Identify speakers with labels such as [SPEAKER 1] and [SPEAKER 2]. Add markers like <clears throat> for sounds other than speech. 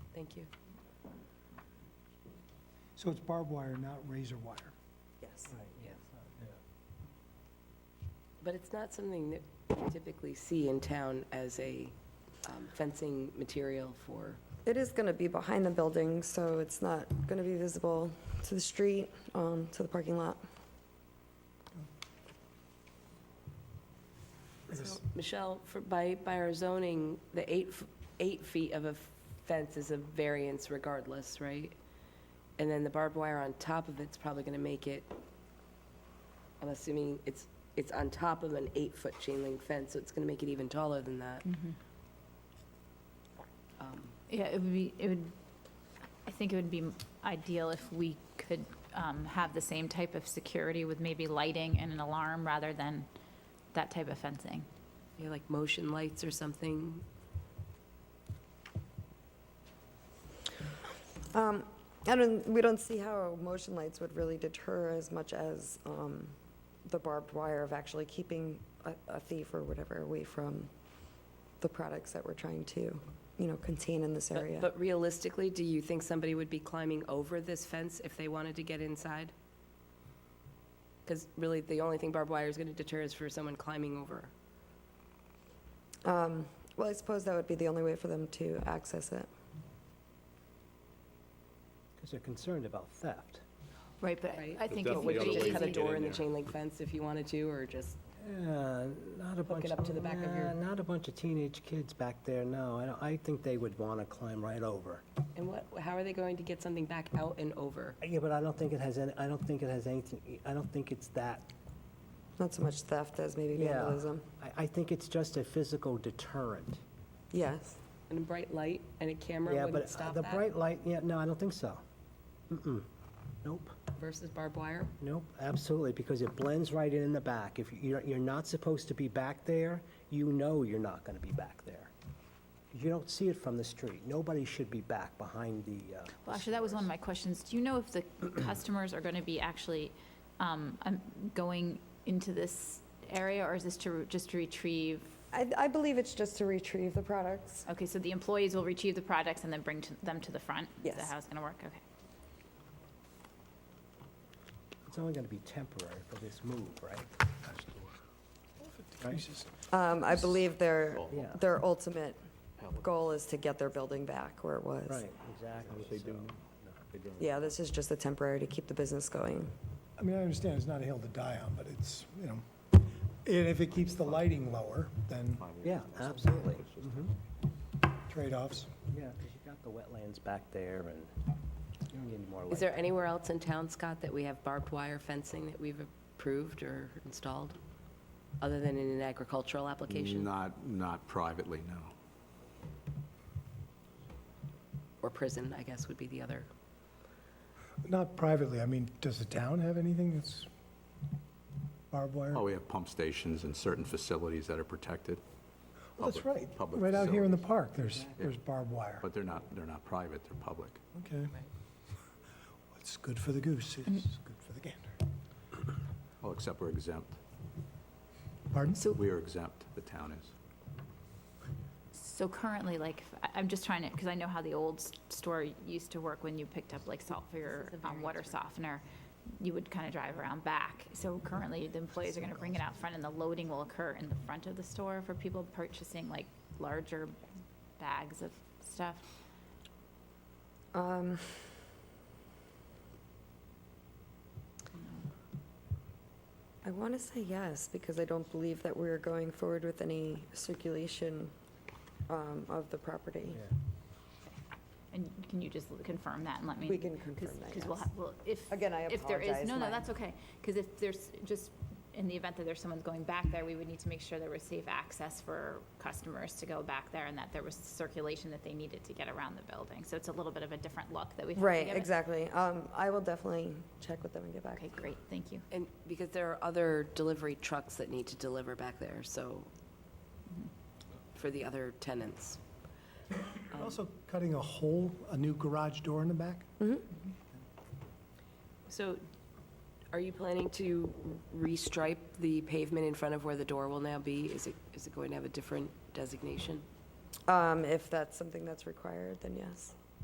[SPEAKER 1] Thank you.
[SPEAKER 2] So it's barbed wire, not razor wire?
[SPEAKER 1] Yes.
[SPEAKER 2] Right.
[SPEAKER 1] But it's not something that you typically see in town as a um, fencing material for,
[SPEAKER 3] It is going to be behind the building, so it's not going to be visible to the street, um, to the parking lot.
[SPEAKER 2] I guess-
[SPEAKER 1] Michelle, for, by, by our zoning, the eight, f- eight feet of a fence is a variance regardless, right? And then the barbed wire on top of it's probably going to make it, I'm assuming it's, it's on top of an eight-foot chain link fence, so it's going to make it even taller than that. Um,
[SPEAKER 4] Yeah, it would be, it would, I think it would be ideal if we could um, have the same type of security with maybe lighting and an alarm rather than that type of fencing.
[SPEAKER 1] Yeah, like motion lights or something,
[SPEAKER 3] Um, I don't, we don't see how motion lights would really deter as much as um, the barbed wire of actually keeping a- a thief or whatever away from the products that we're trying to, you know, contain in this
[SPEAKER 1] But-
[SPEAKER 3] area.
[SPEAKER 1] But realistically, do you think somebody would be climbing over this fence if they wanted to get inside? Because really, the only thing barbed wire is going to deter is for someone climbing over.
[SPEAKER 3] Um, Well, I suppose that would be the only way for them to access it.
[SPEAKER 5] Because they're concerned about theft.
[SPEAKER 4] Right, but
[SPEAKER 1] Right.
[SPEAKER 4] I think it would
[SPEAKER 1] You
[SPEAKER 4] be
[SPEAKER 1] could just
[SPEAKER 4] easy.
[SPEAKER 1] cut a door in the
[SPEAKER 6] there.
[SPEAKER 1] chain link fence if you wanted to, or just,
[SPEAKER 5] Yeah, not a bunch.
[SPEAKER 1] it up to the back of your-
[SPEAKER 5] nah, Not a bunch of teenage kids back there, no. I don't, I think they would want to climb right over.
[SPEAKER 1] and what, how are they going to get something back out and over?
[SPEAKER 5] Yeah, but I don't think it has any, I don't think it has anything, I don't think it's that.
[SPEAKER 3] Not so much theft as maybe
[SPEAKER 5] Yeah.
[SPEAKER 3] vandalism.
[SPEAKER 5] I, I think it's just a physical deterrent.
[SPEAKER 3] Yes.
[SPEAKER 1] And a bright light and a camera
[SPEAKER 5] Yeah,
[SPEAKER 1] wouldn't
[SPEAKER 5] but uh,
[SPEAKER 1] stop
[SPEAKER 5] the
[SPEAKER 1] that
[SPEAKER 5] bright light, yeah, no, I don't think so. Mm-mm. Nope,
[SPEAKER 1] versus barbed wire?
[SPEAKER 5] nope, absolutely, because it blends right in in the back. If you're, you're not supposed to be back there, you know you're not going to be back there. You don't see it from the street. Nobody should be back behind the, uh,
[SPEAKER 4] Well, actually, that was one of my questions. Do you know <clears throat> if the customers are going to be actually um, um, going into this area, or is this to, re- just to retrieve?
[SPEAKER 3] I, I believe it's just to retrieve the products.
[SPEAKER 4] Okay, so the employees will retrieve the products and then bring to- them to the front? Is that
[SPEAKER 3] Yes.
[SPEAKER 4] how it's going to work? Okay.
[SPEAKER 5] It's only going to be temporary for this move, right?
[SPEAKER 3] Um, I believe their,
[SPEAKER 5] Yeah.
[SPEAKER 3] their ultimate goal is to get their building back where it was.
[SPEAKER 5] Right, exactly. so-
[SPEAKER 3] Yeah, this is just a temporary to keep the business going.
[SPEAKER 7] I mean, I understand it's not a hill to die on, but it's, you know, and if it keeps the lighting lower, then
[SPEAKER 5] Yeah, absolutely. Mhm.
[SPEAKER 7] trade-offs.
[SPEAKER 5] Yeah, because you got the wetlands back there and you don't need any more
[SPEAKER 1] Is
[SPEAKER 5] light.
[SPEAKER 1] there anywhere else in town, Scott, that we have barbed wire fencing that we've approved or installed? Other than in an agricultural application
[SPEAKER 6] Not, not privately, no.
[SPEAKER 1] or prison, I guess would be the other.
[SPEAKER 7] Not privately, I mean, does the town have anything that's barbed wire?
[SPEAKER 6] Oh, we have pump stations and certain facilities that are protected,
[SPEAKER 7] Well, That's
[SPEAKER 6] public-
[SPEAKER 7] right,
[SPEAKER 6] public
[SPEAKER 7] right out here in the
[SPEAKER 6] facilities.
[SPEAKER 7] park, there's, there's barbed wire.
[SPEAKER 6] but they're not, they're not private, they're public.
[SPEAKER 7] Okay. What's good for the goose is good for the gander.
[SPEAKER 6] Well, except we're exempt.
[SPEAKER 7] Pardon?
[SPEAKER 4] So
[SPEAKER 6] We are exempt, the town is.
[SPEAKER 4] So currently, like, if- I- I'm just trying to, because I know how the old s- store used to work when you picked up like salt for your um, water softener. You would kind of drive around back. So
[SPEAKER 3] Mm-hmm.
[SPEAKER 4] currently, the employees are going to bring it out front and the loading will occur in the front of the store for people purchasing like larger bags of stuff.
[SPEAKER 3] Um, I want to say yes, because I don't believe that we're going forward with any circulation um, of the property.
[SPEAKER 5] Yeah.
[SPEAKER 4] And can you just confirm that and let me?
[SPEAKER 3] We can confirm that,
[SPEAKER 4] Because we'll,
[SPEAKER 3] yes.
[SPEAKER 4] ha- well, if.
[SPEAKER 3] Again, I
[SPEAKER 4] If there is,
[SPEAKER 3] apologize,
[SPEAKER 4] no, no,
[SPEAKER 3] my-
[SPEAKER 4] that's okay. Because if there's, just in the event that there's someone going back there, we would need to make sure there was safe access for customers to go back there and that there was circulation that they needed to get around the building. So it's a little bit of a different look that we have to
[SPEAKER 3] Right,
[SPEAKER 4] give it.
[SPEAKER 3] exactly. Um, I will definitely check with them and get back.
[SPEAKER 4] Okay, great, thank you.
[SPEAKER 1] And because there are other delivery trucks that need to deliver back there, so, for the other tenants.
[SPEAKER 7] You're Also cutting a hole, a new garage door in the back?
[SPEAKER 1] So are you planning to restripe the pavement in front of where the door will now be? Is it, is it going to have a different designation?
[SPEAKER 3] Um, If that's something that's required, then yes.